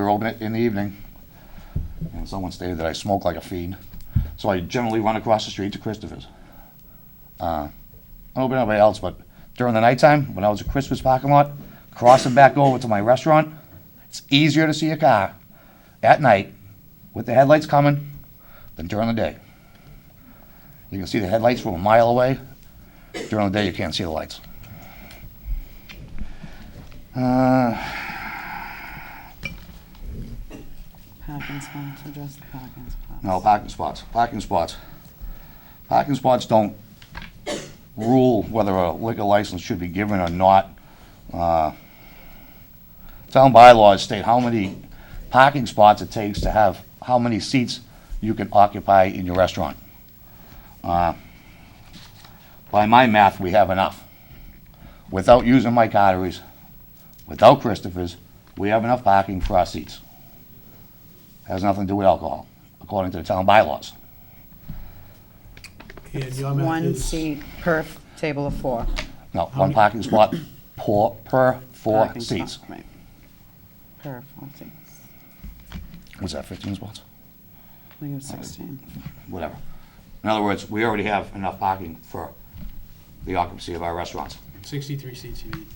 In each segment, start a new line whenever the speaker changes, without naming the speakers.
We were open it in the evening, and someone stated that I smoke like a fiend. So I generally run across the street to Christopher's. Uh, I don't open anybody else, but during the nighttime, when I was at Christopher's parking lot, crossing back over to my restaurant, it's easier to see a car at night with the headlights coming than during the day. You can see the headlights from a mile away. During the day, you can't see the lights.
Parking spots, address the parking spots.
No, parking spots, parking spots. Parking spots don't rule whether a liquor license should be given or not. Uh, Town bylaws state how many parking spots it takes to have, how many seats you can occupy in your restaurant. Uh, By my math, we have enough. Without using my arteries, without Christopher's, we have enough parking for our seats has nothing to do with alcohol, according to the town bylaws.
And your math
One
is-
seat per f- table of four.
No, one parking spot per, per four
Parking
seats.
spot, right. Per four seats.
Was that fifteen spots?
I think it was 16.
Whatever. In other words, we already have enough parking for the occupancy of our restaurants.
63 seats you need.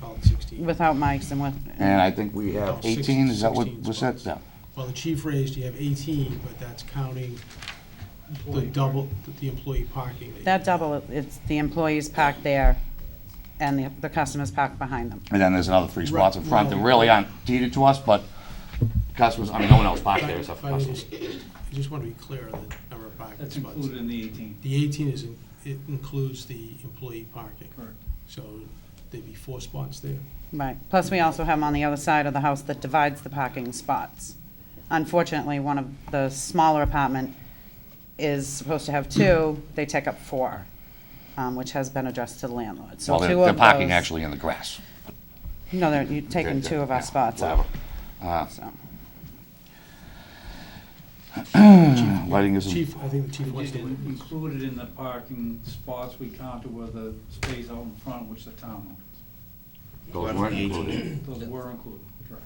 Call it 16.
Without mics and with,
And I think we have
No, six-
eighteen, is that what
16
was said?
spots.
Yeah.
Well, the chief raised, you have 18, but that's counting the double, the employee parking. you-
that double, it's the employees parked there and the, the customers parked behind them.
And then there's another three spots in front that
Right.
really aren't deeded to us, but customers, I mean, no one else
If
parked
I-
there except
if
for
I may
customers.
just- I just want to be clear on the number of parking
That's
spots.
included in the 18.
The 18 is, in- it includes the employee parking.
Correct.
So there'd be four spots there.
Right. Plus, we also have 'em on the other side of the house that divides the parking spots. Unfortunately, one of the smaller apartment is supposed to have two, they take up four, um, which has been addressed to the landlord. So
Well,
two
they're,
of
they're parking
those-
actually in the grass.
No, they're, you're taking two of our
Yeah,
spots up,
whatever.
so.
Uh, Lighting isn't.
Chief, I think the chief wants
It
to.
Included in the parking spots, we counted were the space out in front, which the town
Those weren't included.
owns. Those were included, correct.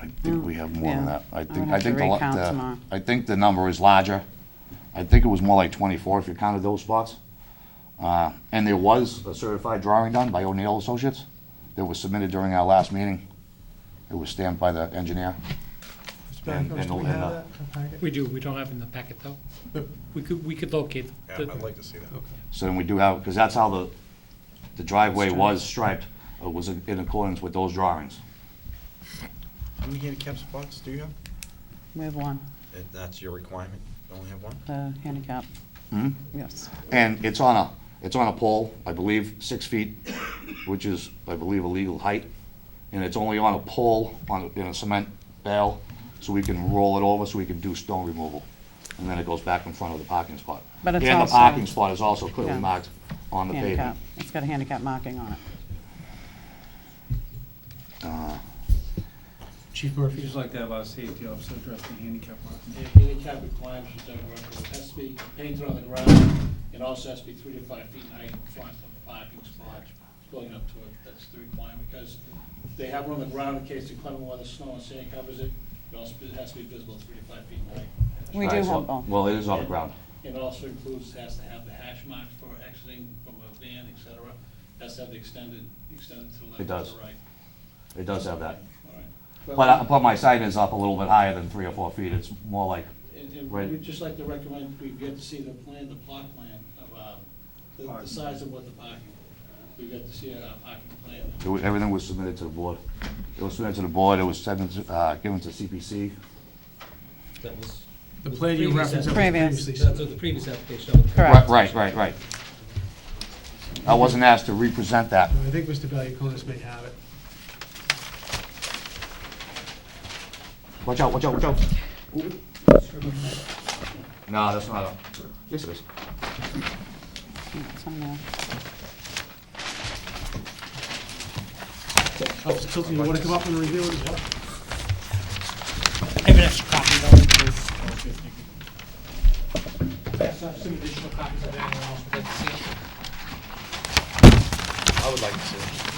I think we have more than
Yeah.
that. I
I
think,
would
I
have to
think the, lo-
recount
the-
tomorrow.
I think the number is larger. I think it was more like twenty-four if you counted those spots. Uh, and there was a certified drawing done by O'Neill Associates that was submitted during our last meeting. It was stamped by the engineer. And- and-
Do we
and, uh,
have that in the packet?
We do, we don't have it in the packet though. We could, we could locate.
Yeah,
the-
I'd like to see that.
So then we do have, because that's how the, the driveway was striped, It was in in accordance with those drawings.
How many handicap spots do you have?
We have one,
If that's your requirement, you only have one?
the handicap.
Hmm?
Yes.
And it's on a, it's on a pole, I believe, six feet, which is, I believe, a legal height. And it's only on a pole, on, a- in a cement bale, so we can roll it over, so we can do stone removal. And then it goes back in front of the parking spot.
But it's
And the
also-
parking spot is also clearly
Yeah.
marked on the
Handicap,
pavement.
it's got a handicap marking on it.
Chief
We'd
Murphy,
just like to have our safety officer address the handicap parking.
The handicap requirements is that it has to be painted on the ground, it also has to be three to five feet high in front of the parking spot, going up to it, that's the requirement, because they have it on the ground in case the climate weather, snow and sand covers it, it also has to be visible three to five feet high.
We do
Right, so-
have both.
Well, it is on the ground.
It also includes, has to have the hash marks for exiting from a van, et cetera, has to have the extended, extended to the left
It
and to
does.
the right.
It does have that.
All right.
But, I- but my sign is up a little bit higher than three or four feet, it's more like,
And, and
Right.
we'd just like to recommend, we get to see the plan, the plot plan of, uh, the, the
Parking.
size of what the parking, we get to see a uh, parking plan.
it wa- everything was submitted to the board. It was submitted to the board, it was sent, uh, given to CPC,
That was,
the plan you referenced that was
Previous.
previously.
that's
submitted.
what the previous application. that was-
Correct.
Right, right, right, right. I wasn't asked to represent that.
No, I think Mr. Valiakonis may have it.
Watch out, watch out, watch out. No, that's not a, yes, it is.
It's on there.
Officer Tilton, Oh, you want to come up and review it as well?
I have an extra copy though.
Some additional copies of that,
I would like to see it.